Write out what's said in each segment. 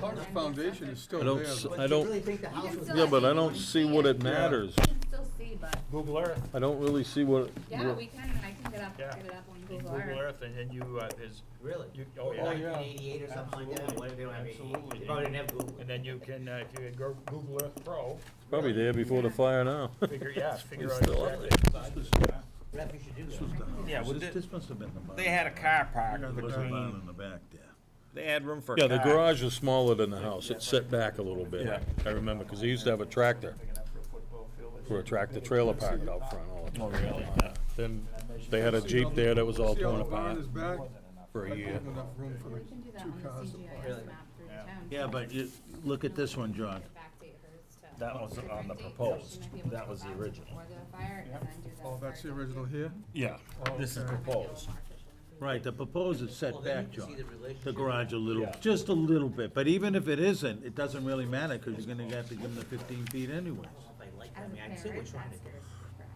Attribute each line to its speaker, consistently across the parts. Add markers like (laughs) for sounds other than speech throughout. Speaker 1: The foundation is still
Speaker 2: I
Speaker 1: there.
Speaker 2: don't, s-
Speaker 1: but-
Speaker 2: I don't,
Speaker 3: really think the house was?
Speaker 2: yeah, but I don't see what it matters.
Speaker 4: You can still see, but,
Speaker 5: Google Earth,
Speaker 2: I don't really see what,
Speaker 4: yeah,
Speaker 2: what-
Speaker 4: we can, I can get up,
Speaker 5: Yeah.
Speaker 4: get it up on Google
Speaker 5: Google
Speaker 4: Earth.
Speaker 5: Earth, and then you, uh, there's,
Speaker 3: Really?
Speaker 5: you, oh,
Speaker 1: Oh,
Speaker 5: yeah.
Speaker 1: yeah.
Speaker 3: Nineteen eighty-eight or something like that,
Speaker 5: Absolutely.
Speaker 3: what, they don't have, eighty-
Speaker 5: Absolutely.
Speaker 3: they probably didn't have Google.
Speaker 5: And then you can, uh, if you go Google Earth Pro,
Speaker 2: probably there before the fire now.
Speaker 5: figure, yeah, figure out
Speaker 2: still up
Speaker 5: exactly.
Speaker 3: Rep, you should do that.
Speaker 6: Yeah, well,
Speaker 7: This
Speaker 6: thi-
Speaker 7: this must have been the barn.
Speaker 6: They had a car
Speaker 7: Yeah,
Speaker 6: park
Speaker 7: There was a
Speaker 5: uh,
Speaker 7: barn
Speaker 6: between,
Speaker 7: in the back there.
Speaker 6: they had room for
Speaker 2: (laughs)
Speaker 6: a
Speaker 2: Yeah,
Speaker 6: car.
Speaker 2: the garage is smaller than the house, it's set back a little bit, I remember, because they used to have a tractor, for a tractor trailer parked out front all the time.
Speaker 6: Oh, really?
Speaker 2: Then they had a Jeep there that was all
Speaker 1: See how
Speaker 2: torn
Speaker 1: the barn
Speaker 2: apart
Speaker 1: is back?
Speaker 2: for a year.
Speaker 1: Not enough room for the
Speaker 4: We can do that
Speaker 1: two
Speaker 4: on the
Speaker 1: cars.
Speaker 4: CGIS map through the town.
Speaker 7: Yeah, but you, look at this one, John.
Speaker 4: Get back to hers to-
Speaker 6: That was
Speaker 4: different
Speaker 6: on the
Speaker 4: dates, so she
Speaker 6: proposed.
Speaker 4: might be able to
Speaker 6: That was
Speaker 4: go
Speaker 6: the
Speaker 4: back to
Speaker 6: original.
Speaker 4: Before the fire, and then do that
Speaker 1: Oh, that's
Speaker 4: part.
Speaker 1: the original here?
Speaker 6: Yeah, this is proposed.
Speaker 7: Right, the proposed is
Speaker 3: Well,
Speaker 7: set
Speaker 3: then you
Speaker 7: back,
Speaker 3: can see
Speaker 7: John.
Speaker 3: relationship.
Speaker 7: The garage a little,
Speaker 6: Yeah.
Speaker 7: just a little bit, but even if it isn't, it doesn't really matter, because you're gonna have to give them the fifteen feet anyways.
Speaker 3: I don't know if I like that.
Speaker 4: As
Speaker 3: I
Speaker 4: a
Speaker 3: mean, I
Speaker 4: parent,
Speaker 3: see what you're trying to
Speaker 4: that's
Speaker 3: do.
Speaker 4: your forever.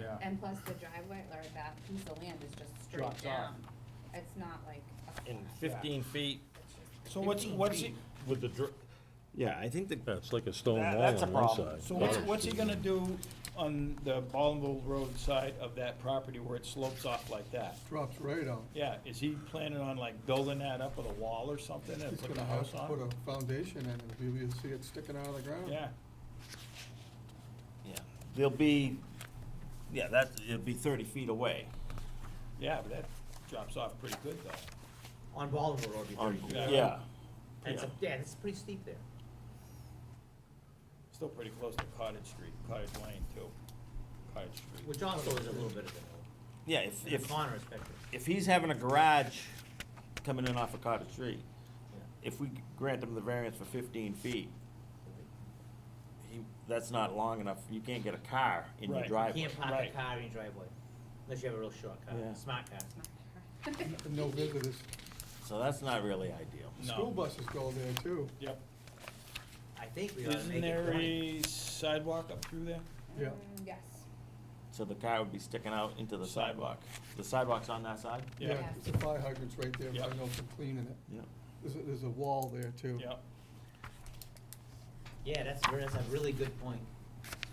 Speaker 3: Yeah.
Speaker 4: And plus the driveway, or that piece of land is just
Speaker 5: Drops
Speaker 4: straight down. It's not like. a
Speaker 6: In
Speaker 4: flat, (laughs)
Speaker 6: fifteen feet.
Speaker 4: it's just
Speaker 5: So what's,
Speaker 4: 15
Speaker 5: what's he,
Speaker 4: feet.
Speaker 6: With the dr- yeah, I think the.
Speaker 2: Yeah, it's like a stone
Speaker 5: That-
Speaker 2: wall
Speaker 6: that's a
Speaker 2: on one
Speaker 6: problem.
Speaker 2: side.
Speaker 5: so what's,
Speaker 2: Yeah.
Speaker 5: what's he gonna do on the Ballinville Road side of that property where it slopes off like that?
Speaker 1: Drops right out.
Speaker 5: Yeah, is he planning on like building that up with a wall or something and
Speaker 1: He's
Speaker 5: putting a
Speaker 1: gonna have
Speaker 5: house
Speaker 1: to
Speaker 5: on?
Speaker 1: put a foundation in, and you'll you'll see it sticking out of the ground.
Speaker 5: Yeah,
Speaker 6: Yeah, They'll be, yeah, that, it'll be thirty feet away.
Speaker 5: yeah, but that drops off pretty good though.
Speaker 3: On Baldwin Road, it'd be thirty feet.
Speaker 6: Yeah,
Speaker 3: That's, a- yeah, it's pretty steep there.
Speaker 5: Still pretty close to Cottage Street, Cottage Lane too. Cottage Street.
Speaker 3: Which also is a little bit of
Speaker 6: yeah, if,
Speaker 3: a, in the
Speaker 6: if,
Speaker 3: corner especially.
Speaker 6: if he's having a garage coming in off of Cottage Street, if we grant him the variance for fifteen feet, he, that's not long enough, you can't get a car in your
Speaker 5: Right.
Speaker 3: You
Speaker 6: driveway.
Speaker 3: can't park a
Speaker 5: Right.
Speaker 3: car in your driveway, unless you have a real short car,
Speaker 6: Yeah.
Speaker 3: smart car.
Speaker 1: And no visitors.
Speaker 6: So that's not really ideal.
Speaker 5: No.
Speaker 1: School buses go there too.
Speaker 5: Yep.
Speaker 3: I think we ought to
Speaker 5: Isn't
Speaker 3: make it
Speaker 5: there
Speaker 3: twenty.
Speaker 5: a sidewalk up through there?
Speaker 1: Yeah.
Speaker 4: Mm, Yes.
Speaker 6: So the car would be sticking out into the
Speaker 5: Sidewalk.
Speaker 6: sidewalk. The sidewalk's on that side?
Speaker 4: Yeah.
Speaker 1: The fire hydrant's right there, but I
Speaker 5: Yeah.
Speaker 1: know for cleaning it.
Speaker 6: Yeah.
Speaker 1: There's, a- there's a wall there too.
Speaker 5: Yep.
Speaker 3: Yeah, that's, ver- that's a really good point.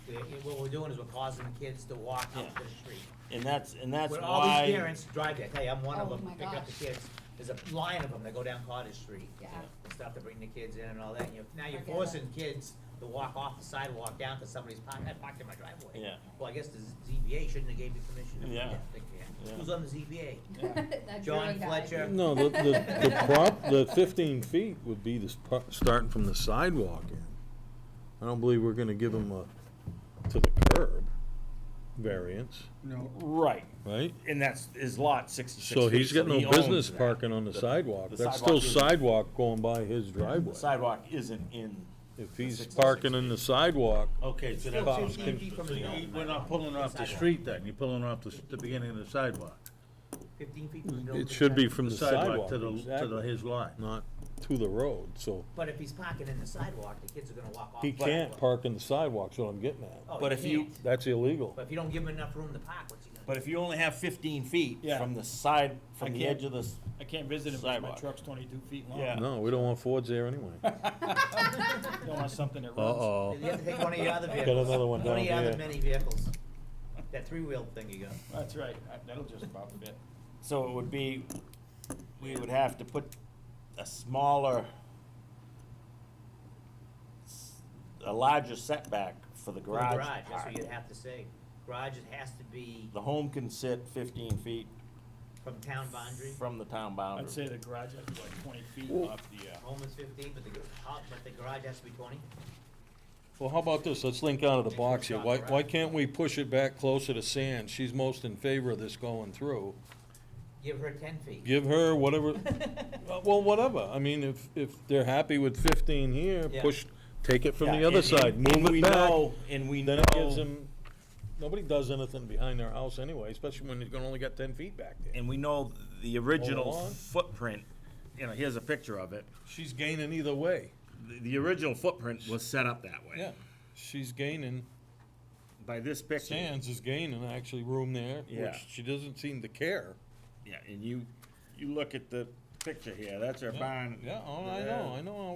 Speaker 3: We- What we're doing is we're causing the kids to walk up
Speaker 6: Yeah.
Speaker 3: the street.
Speaker 6: And that's, and that's
Speaker 3: When all these
Speaker 6: why,
Speaker 3: parents drive there, I tell you, I'm one of
Speaker 4: Oh
Speaker 3: them,
Speaker 4: my
Speaker 3: pick up the
Speaker 4: gosh.
Speaker 3: kids, there's a line of them that go down Cottage Street.
Speaker 4: Yeah.
Speaker 3: And stuff to bring the kids in and all that, and you're, now you're
Speaker 4: Forget it.
Speaker 3: forcing kids to walk off the sidewalk down to somebody's park, I parked in my driveway.
Speaker 6: Yeah.
Speaker 3: Well, I guess the ZBA shouldn't have gave you permission.
Speaker 6: Yeah.
Speaker 3: They can't.
Speaker 6: Yeah.
Speaker 3: Who's on the ZBA?
Speaker 4: (laughs) That
Speaker 3: John
Speaker 4: drawing guy.
Speaker 3: Fletcher.
Speaker 2: No, the, the, the prop, the fifteen feet would be the, sp- starting from the sidewalk in. I don't believe we're gonna give them a, to the curb variance,
Speaker 1: No,
Speaker 6: right,
Speaker 2: right?
Speaker 6: and that's, his lot sixty-six
Speaker 2: So he's
Speaker 6: feet,
Speaker 2: got no
Speaker 6: he owns
Speaker 2: business
Speaker 6: that.
Speaker 2: parking on the sidewalk,
Speaker 6: the
Speaker 2: that's still
Speaker 6: sidewalk isn't-
Speaker 2: sidewalk going by his
Speaker 6: The
Speaker 2: driveway.
Speaker 6: sidewalk isn't in,
Speaker 2: If he's
Speaker 6: 66
Speaker 2: parking in the sidewalk,
Speaker 6: okay, so
Speaker 3: Still
Speaker 6: that's,
Speaker 3: 15 feet from
Speaker 7: So
Speaker 3: the
Speaker 7: you-
Speaker 3: building.
Speaker 7: We're not pulling off the street then, you're pulling off the, s- the beginning of the sidewalk.
Speaker 3: Fifteen feet from the building.
Speaker 2: it should be from the sidewalk,
Speaker 7: To the, to the,
Speaker 2: exactly,
Speaker 7: his lot.
Speaker 2: not to the road, so
Speaker 3: But if he's parking in the sidewalk, the kids are gonna walk off.
Speaker 2: he
Speaker 3: the
Speaker 2: can't
Speaker 3: sidewalk.
Speaker 2: park in the sidewalk, is what I'm getting at.
Speaker 3: Oh,
Speaker 6: But
Speaker 3: he
Speaker 6: if you-
Speaker 3: can't.
Speaker 2: That's illegal.
Speaker 3: But if you don't give him enough room to park, what's he gonna do?
Speaker 6: but if you only have fifteen feet
Speaker 5: Yeah.
Speaker 6: from the side, from the
Speaker 5: can't-
Speaker 6: edge of the, s-
Speaker 5: I can't visit him because my
Speaker 6: Sidewalk.
Speaker 5: truck's twenty-two feet long.
Speaker 6: Yeah.
Speaker 2: No, we don't want Fords there anyway.
Speaker 5: (laughs) Don't want something that
Speaker 2: (laughs)
Speaker 5: runs.
Speaker 2: Uh-oh.
Speaker 3: You have to take one of your
Speaker 2: (laughs)
Speaker 3: other vehicles.
Speaker 2: Oh. another one down
Speaker 3: of your
Speaker 2: here.
Speaker 3: other many vehicles. That three-wheel thing you got.
Speaker 5: That's right, I- that'll just about fit.
Speaker 6: so it would be, we would have to put a smaller, s- a larger setback for
Speaker 3: For the
Speaker 6: the garage
Speaker 3: Garage, that's
Speaker 6: part.
Speaker 3: what you'd have to say. Garage, it has to be
Speaker 6: The home can sit fifteen feet
Speaker 3: from town boundary.
Speaker 6: from the town
Speaker 5: I'd
Speaker 6: boundary.
Speaker 5: say the garage has to be like twenty feet
Speaker 2: Well-
Speaker 5: off the, uh,
Speaker 3: Home is fifteen, but the, gar- uh, but the garage has to be twenty.
Speaker 2: Well, how about this, let's link out of the box here, why,
Speaker 3: Shop
Speaker 2: why
Speaker 3: around.
Speaker 2: can't we push it back closer to sand, she's most in favor of this going through.
Speaker 3: Give her ten feet.
Speaker 2: Give her (laughs) whatever, uh, well, whatever, I mean, if, if they're happy with fifteen here,
Speaker 3: Yeah.
Speaker 2: push, take it from
Speaker 6: Yeah,
Speaker 2: the other
Speaker 6: and-
Speaker 2: side,
Speaker 6: and- and
Speaker 2: move
Speaker 6: we
Speaker 2: it back.
Speaker 6: know- And we know.
Speaker 2: Then it gives them, nobody does anything behind their house anyway, especially when you're gonna only got ten feet back there.
Speaker 6: and we know the original
Speaker 2: Hold on.
Speaker 6: footprint, you know, here's a picture of it.
Speaker 2: She's gaining either way,
Speaker 6: The, the original footprint was set up that way.
Speaker 2: yeah, she's gaining,
Speaker 6: By this picture.
Speaker 2: Sands is gaining actually room there,
Speaker 6: Yeah.
Speaker 2: which she doesn't seem to care.
Speaker 6: Yeah, and you, you look at the picture here, that's our
Speaker 2: Yeah,
Speaker 6: barn. Uh,
Speaker 2: Yeah, oh, I know, I know,